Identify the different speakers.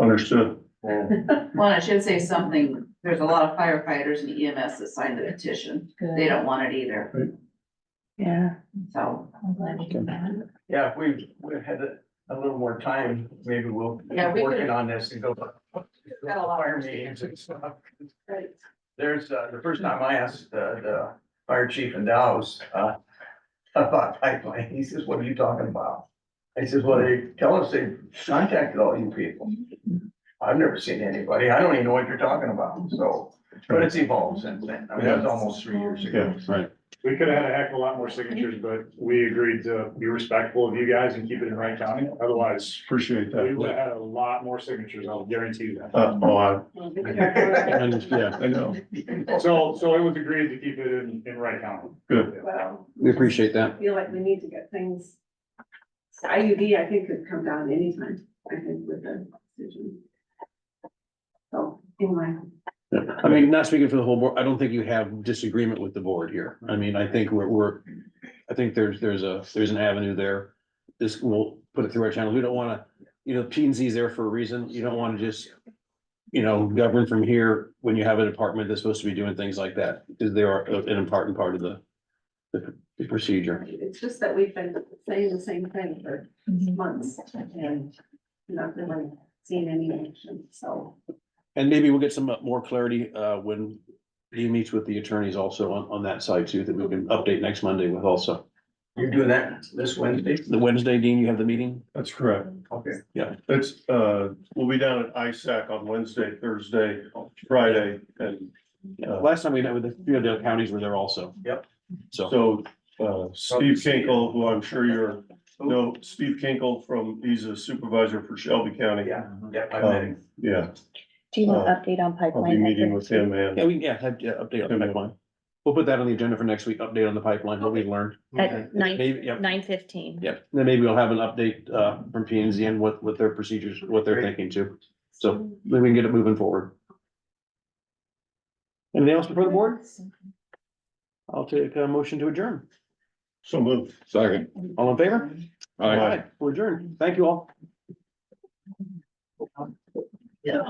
Speaker 1: Understood.
Speaker 2: Well, I should say something, there's a lot of firefighters and EMS that signed the petition, they don't want it either,
Speaker 3: Yeah.
Speaker 2: so,
Speaker 4: Yeah, if we've, we've had a, a little more time, maybe we'll be
Speaker 2: Yeah, we could-
Speaker 4: working on this and go.
Speaker 2: Got a lot
Speaker 4: Fire
Speaker 2: of
Speaker 4: meetings and stuff.
Speaker 2: Right.
Speaker 4: There's, uh, the first time I asked, uh, the fire chief in Dallas, uh, about pipeline, he says, what are you talking about? I says, well, they tell us they contacted all you people. I've never seen anybody, I don't even know what you're talking about, so, but it's evolved since then, I mean, that was almost three years ago.
Speaker 1: Yeah, right.
Speaker 5: We could have had a heck of a lot more signatures, but we agreed to be respectful of you guys and keep it in Wright County. Otherwise,
Speaker 1: Appreciate
Speaker 5: we would have
Speaker 1: that.
Speaker 5: had a lot more signatures, I'll guarantee you that.
Speaker 1: Uh, oh, I, I understand. I know.
Speaker 5: So, so it was agreed to keep it in, in Wright County.
Speaker 1: Good.
Speaker 6: Well,
Speaker 7: We appreciate that.
Speaker 6: I feel like we need to get things, so IUD, I think, could come down anytime, I think, with the decision. So, anyway.
Speaker 7: I mean, not speaking for the whole board, I don't think you have disagreement with the board here. I mean, I think we're, we're, I think there's, there's a, there's an avenue there. This, we'll put it through our channel. We don't wanna, you know, P and Z's there for a reason. You don't wanna just, you know, govern from here when you have a department that's supposed to be doing things like that, because they are an important part of the, the procedure.
Speaker 6: It's just that we've been saying the same thing for months and not really seen any action, so.
Speaker 7: And maybe we'll get some more clarity, uh, when he meets with the attorneys also on, on that side too, that we can update next Monday with also.
Speaker 4: You're doing that this Wednesday?
Speaker 7: The Wednesday, Dean, you have the meeting?
Speaker 1: That's correct.
Speaker 4: Okay.
Speaker 1: It's, uh, we'll be down at ISAC on Wednesday, Thursday, Friday, and uh,
Speaker 7: Yeah, last time we met with the, few of the counties were there also.
Speaker 4: Yep.
Speaker 7: So,
Speaker 1: so, uh, Steve Kinkle, who I'm sure you're, no, Steve Kinkle from, he's a supervisor for Shelby County.
Speaker 4: Yeah, yeah, I met him.
Speaker 1: Um, yeah,
Speaker 3: Do you want
Speaker 1: Uh,
Speaker 3: an update on
Speaker 1: I'll be
Speaker 3: pipeline?
Speaker 1: meeting with him
Speaker 7: yeah,
Speaker 1: and,
Speaker 7: we, yeah, have, yeah, update on the
Speaker 1: Okay.
Speaker 7: pipeline. We'll put that on the agenda for next week, update on the pipeline, what we learned.
Speaker 3: At
Speaker 7: Maybe,
Speaker 3: nine,
Speaker 7: yep.
Speaker 3: nine fifteen.
Speaker 7: Yep, then maybe we'll have an update, uh, from P and Z and what, what their procedures, what they're thinking too. So then we can get it moving forward. Anything else before the board? I'll take a motion to adjourn.
Speaker 1: so moved.
Speaker 7: Second. All in favor?
Speaker 1: Aye.
Speaker 7: We're adjourned. Thank you all.
Speaker 6: Yeah.